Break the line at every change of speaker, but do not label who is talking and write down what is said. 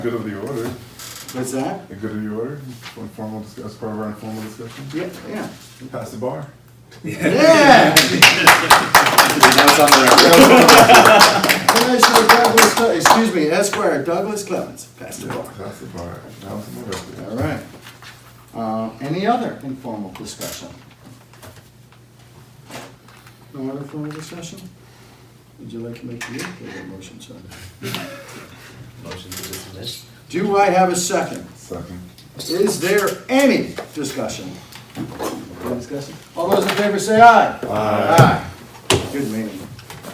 Good of the order,
What's that?
the good of the order, informal discuss, as part of our informal discussion,
Yeah, yeah.
pass the bar.
Yeah! Commissioner Douglas, Cle- excuse me, Esquire Douglas Clemens, pass the bar.
Pass the bar, that was my
All
birthday.
right. Uh, Any other informal discussion? No other formal discussion? Would you like to make your your motion, sir?
Motion to dismiss?
Do I have a second?
Second.
Is there any discussion? No discussion? All those in favor say aye. Aye. Good meeting.